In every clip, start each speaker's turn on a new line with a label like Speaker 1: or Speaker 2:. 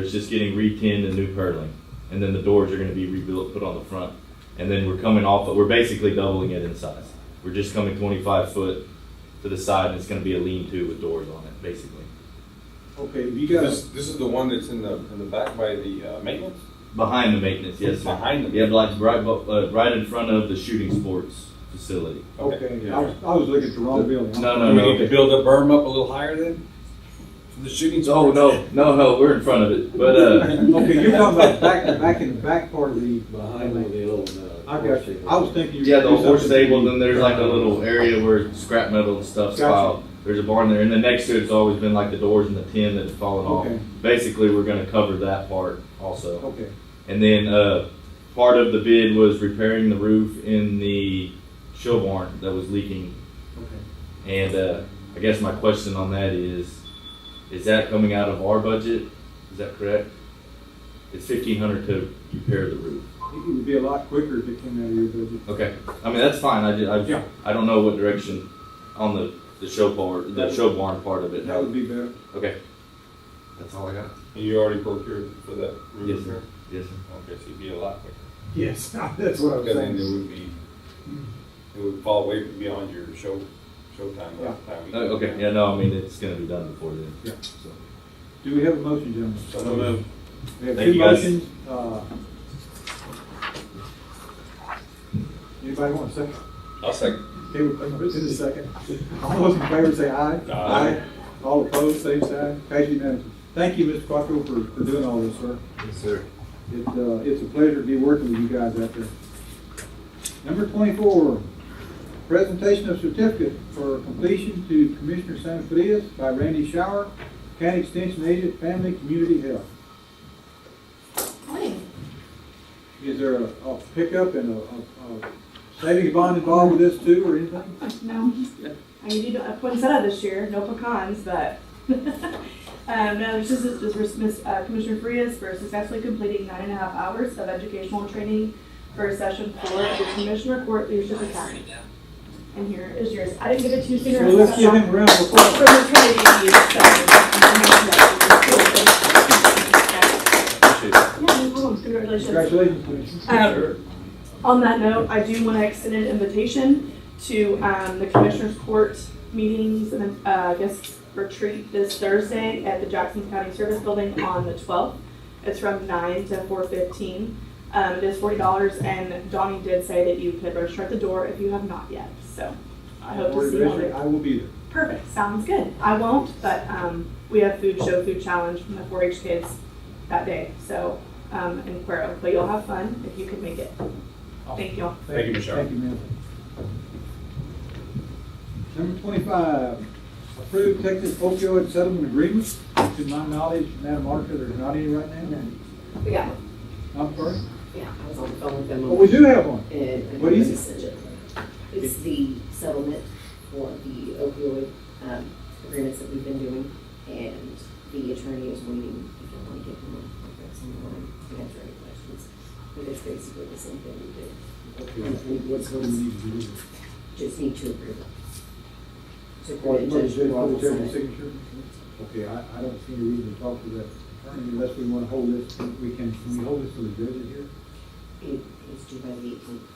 Speaker 1: It's just getting re-tinned and new purling, and then the doors are gonna be rebuilt, put on the front, and then we're coming off, we're basically doubling it in size. We're just coming twenty-five foot to the side, and it's gonna be a lean-to with doors on it, basically.
Speaker 2: Okay, you
Speaker 3: This,
Speaker 2: guys,
Speaker 3: this is the one that's in the, in the back by the uh, maintenance?
Speaker 1: Behind the maintenance, yes, sir.
Speaker 3: Behind the-
Speaker 1: Yeah, like right, bu- uh, right in front of the shooting sports facility.
Speaker 2: okay, I
Speaker 3: Yeah.
Speaker 2: was, I was looking at the wrong building.
Speaker 1: No,
Speaker 3: Do
Speaker 1: no,
Speaker 3: we need to
Speaker 1: no.
Speaker 3: build the berm up a little higher then? For the shooting?
Speaker 1: Oh, no, no, no, we're in front of it, but, uh,
Speaker 2: Okay, you're talking about back, back in the back part of the,
Speaker 4: Behind where the old, uh.
Speaker 2: I got you, I was thinking. you
Speaker 1: yeah, the
Speaker 2: could do
Speaker 1: horse
Speaker 2: something-
Speaker 1: stable, then there's like a little area where scrap metal and stuff's
Speaker 2: Gotcha.
Speaker 1: piled. There's a barn there, and then next to it's always been like the doors and the tin that have fallen
Speaker 2: Okay.
Speaker 1: off. Basically, we're gonna cover that part also.
Speaker 2: Okay,
Speaker 1: And then uh, part of the bid was repairing the roof in the show barn that was leaking.
Speaker 2: okay.
Speaker 1: And uh, I guess my question on that is, is that coming out of our budget? Is that correct? It's fifteen hundred to repair the roof.
Speaker 2: It would be a lot quicker if it came out of your budget.
Speaker 1: Okay, I mean that's fine. I ju- I,
Speaker 2: Yeah.
Speaker 1: I don't know what direction on the the show part, the show barn part of it.
Speaker 2: That would be better.
Speaker 1: Okay, that's all I got.
Speaker 3: You already procured for that roof repair?
Speaker 1: Yes, sir.
Speaker 3: Okay, so it'd be a lot quicker.
Speaker 2: Yes, that's what I was
Speaker 3: Because then it
Speaker 2: saying.
Speaker 3: would be, it would fall way beyond your show, showtime last time. we-
Speaker 1: No, Uh, Oh, okay, yeah, no, I mean it's gonna be done before then.
Speaker 2: Yeah.
Speaker 1: So.
Speaker 2: Do we have a motion, gentlemen?
Speaker 3: So moved.
Speaker 2: We have
Speaker 1: Thank
Speaker 2: two
Speaker 1: you, guys.
Speaker 2: motions, uh. Anybody want a second?
Speaker 3: I'll second.
Speaker 2: Okay, we'll put Chris in a second. All those in favor say aye.
Speaker 3: Aye.
Speaker 2: All opposed, same sign. Pass unanimously. Thank you, Mr. Quattro, for, for doing all this, sir.
Speaker 4: Yes, sir.
Speaker 2: It, uh, it's a pleasure to be working with you guys out there. Number twenty-four, presentation of certificate for completion to Commissioner San Frias by Randy Shower, County Extension Agent, Family Community Health. Is there a, a pickup and a, a, a savings bond involved with this too, or anything?
Speaker 5: No. I mean, you don't have poinsettia this year, no pecans, but, um, no, this is, this is Miss- uh, Commissioner Frias for successfully completing nine and a half hours of educational training for session four of the Commissioner Court Leadership Academy. And here is yours. I didn't give it to you sooner.
Speaker 2: So let's give him a round of applause.
Speaker 5: From the training you so. Yeah, no problem. Congratulations.
Speaker 2: Congratulations, Commissioner.
Speaker 5: Um, on that note, I do want to extend an invitation to um, the Commissioners Court meetings and uh, guest retreat this Thursday at the Jackson County Service Building on the 12th. It's from 9 to 4:15. Um, It is $40, and Donnie did say that you could register at the door if you have not yet, so I hope to see you all there.
Speaker 2: I will be there.
Speaker 5: Perfect, sounds good. I won't, but um, we have food show, food challenge from the 4-H kids that day, so, um, in Cuero. But you'll have fun if you can make it. Thank you.
Speaker 3: Thank you, Michelle.
Speaker 2: Thank you, ma'am. Number twenty-five, approve Texas opioid settlement agreement. To my knowledge, Madam Marker, there's not any right now.
Speaker 6: We got one.
Speaker 2: I'm sorry.
Speaker 6: Yeah, I was on the phone with them.
Speaker 2: But we do have one.
Speaker 6: And- and
Speaker 2: What is it?
Speaker 6: it's a- It's the settlement for the opioid um, agreements that we've been doing, and the attorney is waiting, if you want to get him on, conference on the line, to answer any questions. But it's basically the same thing we did. And we
Speaker 2: What do we need to do?
Speaker 6: Just need to approve. it. To
Speaker 2: Or
Speaker 6: court,
Speaker 2: is
Speaker 6: Judge
Speaker 2: it
Speaker 6: Walker
Speaker 2: every
Speaker 6: signed it.
Speaker 2: signature? Okay, I, I don't see any reason to talk to that attorney unless we want to hold this, we can, can we hold this till the judge is here?
Speaker 6: It- It's due by the eighteenth,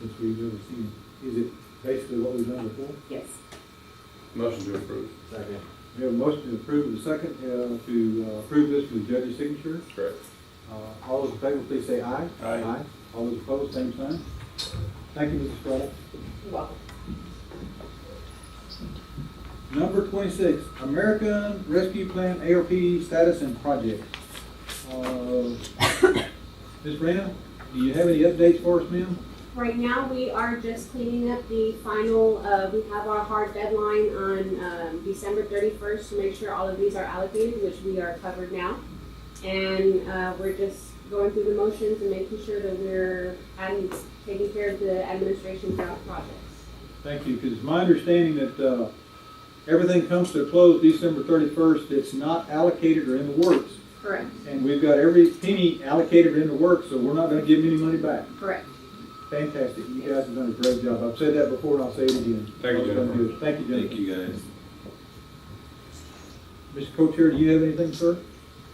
Speaker 2: Since we've never seen, is it basically what we've done before?
Speaker 6: yes.
Speaker 3: Motion to approve.
Speaker 4: Second.
Speaker 2: We have a motion to approve and a second, uh, to uh, approve this for the judge's signature.
Speaker 3: Correct.
Speaker 2: Uh, All those in favor, please say aye.
Speaker 3: Aye.
Speaker 2: All those opposed, same sign. Thank you, Mrs. Strada.
Speaker 6: You're welcome.
Speaker 2: Number twenty-six, American Rescue Plan ARP status and project. Uh, Ms. Rena, do you have any updates for us, ma'am?
Speaker 7: Right now, we are just cleaning up the final, uh, we have our hard deadline on, um, December thirty-first to make sure all of these are allocated, which we are covered now. And, uh, we're just going through the motions and making sure that we're adding, taking care of the administration throughout projects.
Speaker 2: Thank you, because it's my understanding that uh, everything comes to a close December thirty-first. It's not allocated or in the works.
Speaker 7: Correct,
Speaker 2: And we've got every penny allocated in the works, so we're not gonna give them any money back.
Speaker 7: correct.
Speaker 2: Fantastic, you guys have done a great job. I've said that before and I'll say it again.
Speaker 3: Thank you, Jennifer.
Speaker 2: Thank you,
Speaker 3: Thank
Speaker 2: Jennifer.
Speaker 3: you, guys.
Speaker 2: Mr. Co-Chair, do you have anything, sir?